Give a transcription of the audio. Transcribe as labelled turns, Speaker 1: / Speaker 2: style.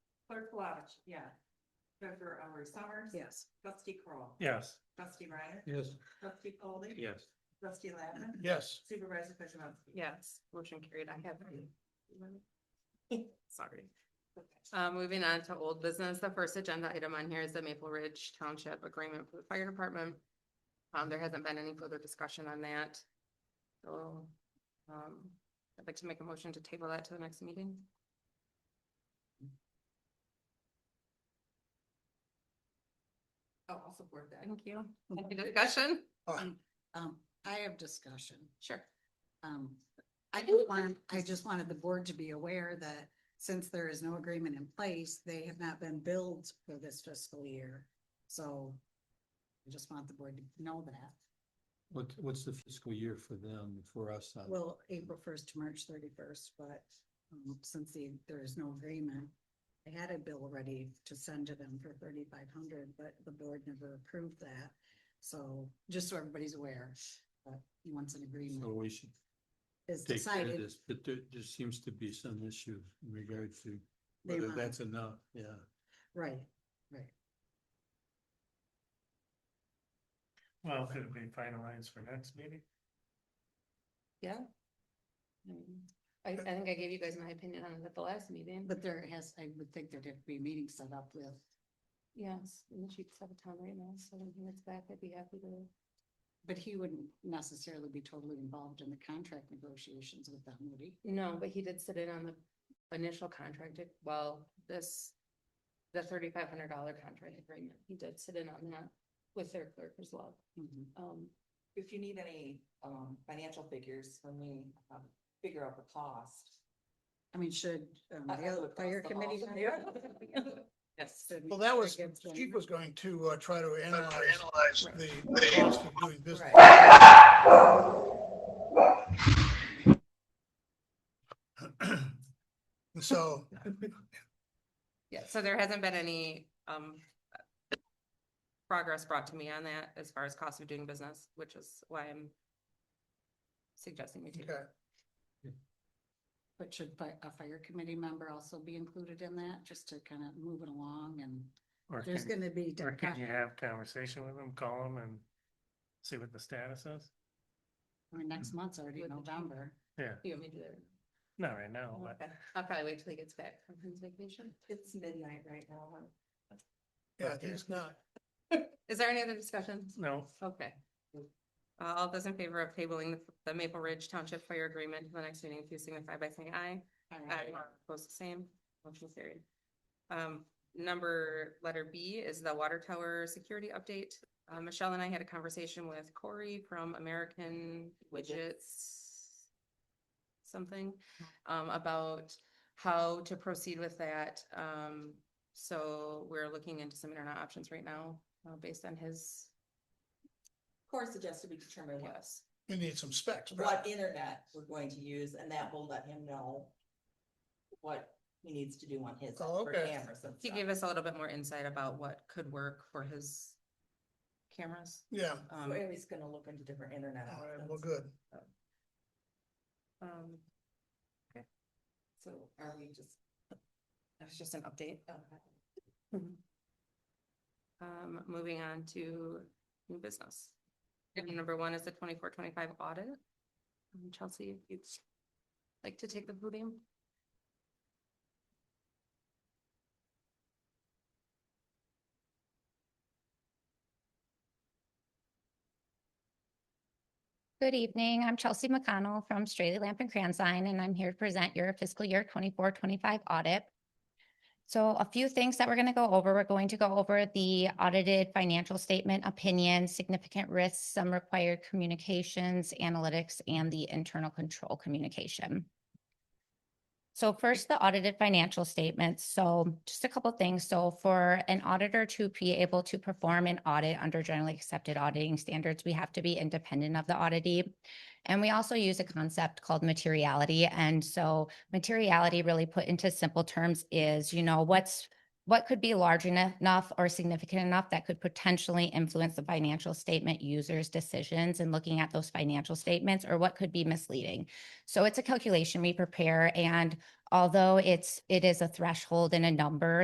Speaker 1: Clerk Flavich, yeah. Treasurer Ellery Summers.
Speaker 2: Yes.
Speaker 1: Trustee Crawl.
Speaker 3: Yes.
Speaker 1: Trustee Ryan.
Speaker 3: Yes.
Speaker 1: Trustee Foldy,
Speaker 3: Yes.
Speaker 1: Trustee Lappin.
Speaker 3: Yes.
Speaker 1: Supervisor Kozibowski.
Speaker 2: Yes, motion carried. I have, sorry.
Speaker 1: Okay.
Speaker 2: Uh, moving on to old business, the first agenda item on here is the Maple Ridge Township Agreement for the Fire Department. Um, there hasn't been any further discussion on that. So, um, I'd like to make a motion to table that to the next meeting.
Speaker 1: Oh, I'll support that.
Speaker 2: Thank you. Any discussion?
Speaker 4: Um, I have discussion.
Speaker 2: Sure.
Speaker 4: Um, I just want, I just wanted the board to be aware that since there is no agreement in place, they have not been billed for this fiscal year. So I just want the board to know that.
Speaker 3: What, what's the fiscal year for them, for us? uh,
Speaker 4: Well, April first to March thirty-first, but um, since the, there is no agreement, I had a bill ready to send to them for thirty-five hundred, but the board never approved that. So just so everybody's aware, that once an
Speaker 3: So
Speaker 4: agreement
Speaker 3: we should
Speaker 4: is
Speaker 3: take care of
Speaker 4: decided,
Speaker 3: this, but there, there seems to be some issue in regard to
Speaker 4: They
Speaker 3: whether
Speaker 4: want-
Speaker 3: that's enough, yeah.
Speaker 4: right, right.
Speaker 5: Well, could it be finalized for next meeting?
Speaker 2: Yeah. I, I think I gave you guys my opinion on it at the last meeting.
Speaker 4: But there has, I would think there'd have to be meetings set up with,
Speaker 2: Yes, and the sheets have a time right now, so when he gets back, I'd be happy to.
Speaker 4: but he wouldn't necessarily be totally involved in the contract negotiations with them, would he?
Speaker 2: No, but he did sit in on the initial contract, it- well, this, the thirty-five hundred dollar contract agreement, he did sit in on that with their clerk as well.
Speaker 4: Mhm.
Speaker 2: Um,
Speaker 1: If you need any, um, financial figures when we, um, figure out the cost.
Speaker 4: I mean, should, um,
Speaker 1: I- I would
Speaker 4: the
Speaker 1: cross
Speaker 4: fire
Speaker 1: them off.
Speaker 4: committee?
Speaker 1: Yes.
Speaker 4: should we-
Speaker 6: Well, that was,
Speaker 4: should I give
Speaker 6: she
Speaker 4: them-
Speaker 6: was going to uh, try to analyze
Speaker 2: Right.
Speaker 6: the the cost of doing business.
Speaker 1: Right.
Speaker 6: And So,
Speaker 2: yeah, so there hasn't been any, um, progress brought to me on that as far as cost of doing business, which is why I'm suggesting we take.
Speaker 6: okay,
Speaker 4: But should fi- a fire committee member also be included in that, just to kind of move it along and
Speaker 5: Or
Speaker 4: there's
Speaker 5: can,
Speaker 4: gonna be.
Speaker 5: or can you
Speaker 4: discussion.
Speaker 5: have conversation with them, call them and see what the status is?
Speaker 4: I mean, next month's already
Speaker 2: With the-
Speaker 4: November.
Speaker 5: Yeah,
Speaker 2: You want me to do that?
Speaker 5: not right now, but
Speaker 2: Okay, I'll probably wait till he gets back from his vacation.
Speaker 1: It's midnight right now. huh?
Speaker 6: yeah, it's not,
Speaker 2: Is there any other discussion?
Speaker 5: no,
Speaker 2: Okay. Uh, All those in favor of tabling the- the Maple Ridge Township Fire Agreement to the next meeting, please signify by saying aye.
Speaker 4: All
Speaker 2: Aye.
Speaker 4: right.
Speaker 2: Opposed, the same. Motion carried. Um, number, letter B is the water tower security update. Uh, Michelle and I had a conversation with Corey from American Widgets something, um, about how to proceed with that. Um, so we're looking into some internet options right now, uh, based on his,
Speaker 1: Core suggested we determine what
Speaker 2: yes.
Speaker 6: we need some specs.
Speaker 1: what internet we're going to use, and that will let him know what he needs to do on his. end
Speaker 6: Oh,
Speaker 1: for
Speaker 6: okay.
Speaker 1: cameras and
Speaker 2: He
Speaker 1: stuff.
Speaker 2: gave us a little bit more insight about what could work for his cameras.
Speaker 6: Yeah,
Speaker 1: So
Speaker 2: Um,
Speaker 1: Aries gonna look into different internet.
Speaker 6: all right,
Speaker 1: options.
Speaker 6: well, good.
Speaker 2: um,
Speaker 1: So are we just?
Speaker 2: that was just an update.
Speaker 1: okay.
Speaker 2: Um, moving on to new business. Item Number one is the twenty-four, twenty-five audit. Um, Chelsea, if you'd like to take the podium.
Speaker 7: Good evening. I'm Chelsea McConnell from Straley Lamp and Cranzine, and I'm here to present your fiscal year 24-25 audit. So a few things that we're going to go over. We're going to go over the audited financial statement, opinion, significant risks, some required communications, analytics, and the internal control communication. So first, the audited financial statements. So just a couple things. So for an auditor to be able to perform an audit under generally accepted auditing standards, we have to be independent of the auditee. And we also use a concept called materiality. And so materiality really put into simple terms is, you know, what's what could be large eno- enough or significant enough that could potentially influence the financial statement users' decisions and looking at those financial statements or what could be misleading. So it's a calculation we prepare and although it's, it is a threshold and a number